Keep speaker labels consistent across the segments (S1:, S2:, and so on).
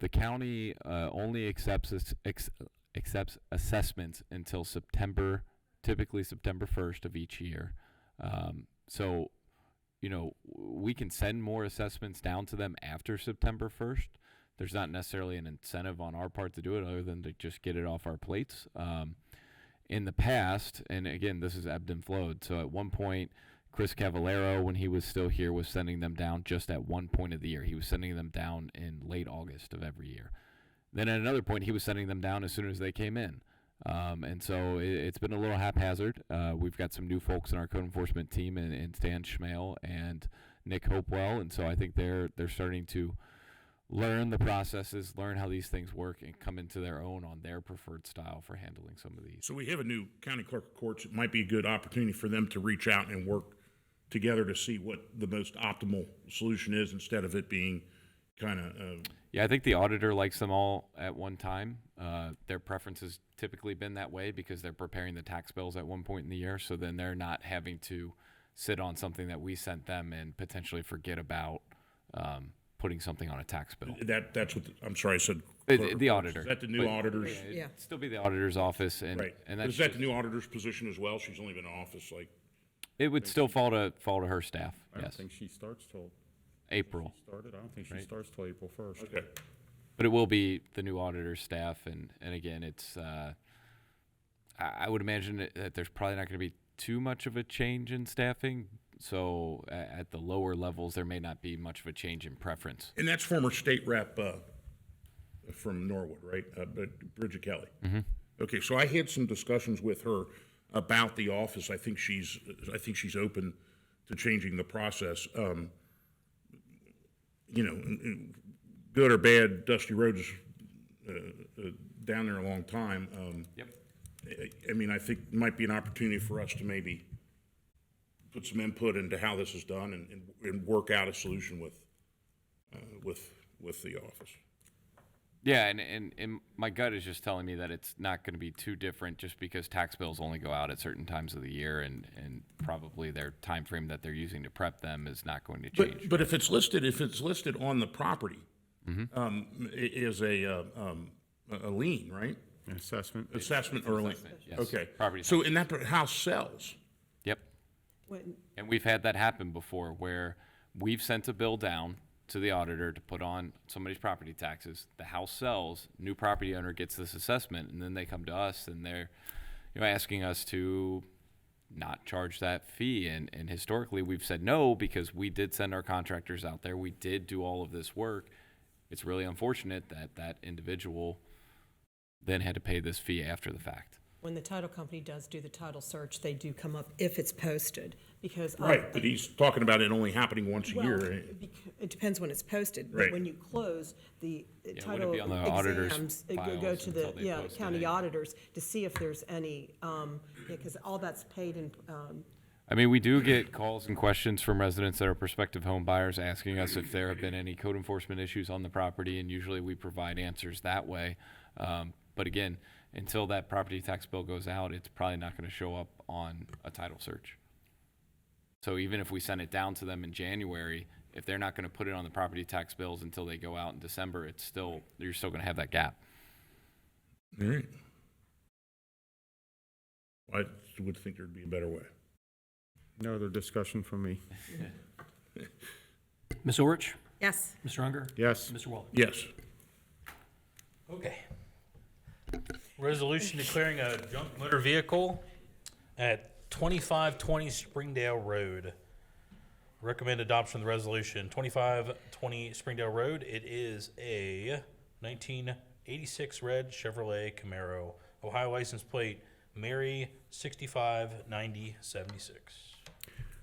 S1: The county uh, only accepts ass- ex- accepts assessments until September, typically September first of each year. Um, so, you know, we can send more assessments down to them after September first. There's not necessarily an incentive on our part to do it, other than to just get it off our plates. Um, in the past, and again, this is ebbed and flowed. So at one point, Chris Cavallero, when he was still here, was sending them down just at one point of the year. He was sending them down in late August of every year. Then at another point, he was sending them down as soon as they came in. Um, and so it, it's been a little haphazard. Uh, we've got some new folks in our code enforcement team, and, and Stan Schmale and Nick Hopewell, and so I think they're they're starting to learn the processes, learn how these things work, and come into their own on their preferred style for handling some of these.
S2: So we have a new county clerk of courts. It might be a good opportunity for them to reach out and work together to see what the most optimal solution is instead of it being kind of, uh,
S1: Yeah, I think the auditor likes them all at one time. Uh, their preference has typically been that way because they're preparing the tax bills at one point in the year. So then they're not having to sit on something that we sent them and potentially forget about um, putting something on a tax bill.
S2: that, that's what, the- I'm sorry, I said.
S1: The-
S2: clerk of
S1: the
S2: courts.
S1: auditor.
S2: Is that the new
S1: But-
S2: auditor's,
S1: It'd
S3: Yeah.
S1: still be the auditor's office, and
S2: right?
S1: and
S2: Is
S1: that's
S2: that
S1: just-
S2: the new auditor's position as well? She's only been in office like,
S1: it would still fall to fall to her staff.
S4: I don't
S1: Yes,
S4: think she starts till,
S1: April,
S4: started, I don't think she starts till April first.
S2: okay.
S1: but it will be the new auditor's staff, and and again, it's. Uh, I I would imagine that- that there's probably not going to be too much of a change in staffing. So a- at the lower levels, there may not be much of a change in preference.
S2: And that's former state rep uh, from Norwood, right? Uh, Brid- Bridget Kelly. Okay, so I had some discussions with her about the office. I think she's, I think she's open to changing the process. Um, You know, and- and good or bad, Dusty Rhodes is uh, uh, down there a long time. Um,
S1: Yep.
S2: I- I mean, I think it might be an opportunity for us to maybe put some input into how this is done and, and- and work out a solution with, uh, with, with the office.
S1: Yeah, and, and, and my gut is just telling me that it's not going to be too different just because tax bills only go out at certain times of the year and, and probably their time frame that they're using to prep them is not going to change.
S2: But, but if it's listed, if it's listed on the property,
S1: Mm-hmm.
S2: um, i- is a, uh, um, a a lien, right?
S4: Assessment,
S2: Assessment or a lien?
S1: yes.
S2: Okay.
S1: Property
S2: So in that, per- house sells,
S1: Yep.
S3: When,
S1: And we've had that happen before where we've sent a bill down to the auditor to put on somebody's property taxes. The house sells, new property owner gets this assessment, and then they come to us and they're, you know, asking us to not charge that fee. And, and historically, we've said no because we did send our contractors out there. We did do all of this work. It's really unfortunate that that individual then had to pay this fee after the fact.
S3: when the title company does do the title search, they do come up if it's posted, because. I-
S2: right, but he's talking about it only happening once a
S3: Well,
S2: year. eh?
S3: it bec- It depends when it's posted. but
S2: Right.
S3: When you close, the uh,
S1: it
S3: title
S1: wouldn't be on the auditor's
S3: exams, it go- go
S1: files
S3: to the,
S1: until they
S3: yeah,
S1: posted
S3: county
S1: it.
S3: auditors to see if there's any, um, yeah, because all that's paid in, um,
S1: I mean, we do get calls and questions from residents that are prospective home buyers asking us if there have been any code enforcement issues on the property, and usually we provide answers that way. Um, but again, until that property tax bill goes out, it's probably not going to show up on a title search. So even if we send it down to them in January, if they're not going to put it on the property tax bills until they go out in December, it's still, you're still going to have that gap.
S2: All right. I would think there'd be a better way.
S4: no other discussion from me.
S5: Ms. Orich,
S3: yes,
S5: Mr. Unger,
S4: Yes,
S5: Mr. Waller.
S2: Yes.
S5: Okay. Resolution declaring a junk motor vehicle at 2520 Springdale Road. Recommend adoption of the resolution. 2520 Springdale Road, it is a 1986 red Chevrolet Camaro. Ohio license plate Mary 659076.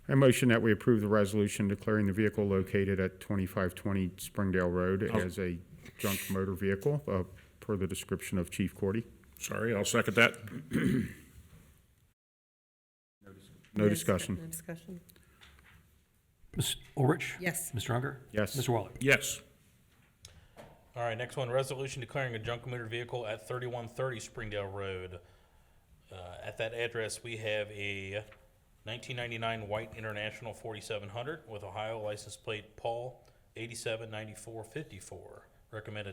S4: I motion that we approve the resolution declaring the vehicle located at twenty-five twenty Springdale Road as a junk motor vehicle, uh, per the description of Chief Cordy.
S2: Sorry, I'll second that.
S4: No
S3: dis-
S4: discussion.
S3: No discussion.
S5: Ms. Orich?
S3: Yes.
S5: Mr. Unger?
S4: Yes.
S5: Mr. Waller?
S2: Yes.
S5: All right, next one, resolution declaring a junk motor vehicle at thirty-one thirty Springdale Road. Uh, at that address, we have a nineteen ninety-nine white International forty-seven hundred with Ohio license plate Paul eighty-seven ninety-four fifty-four. Recommended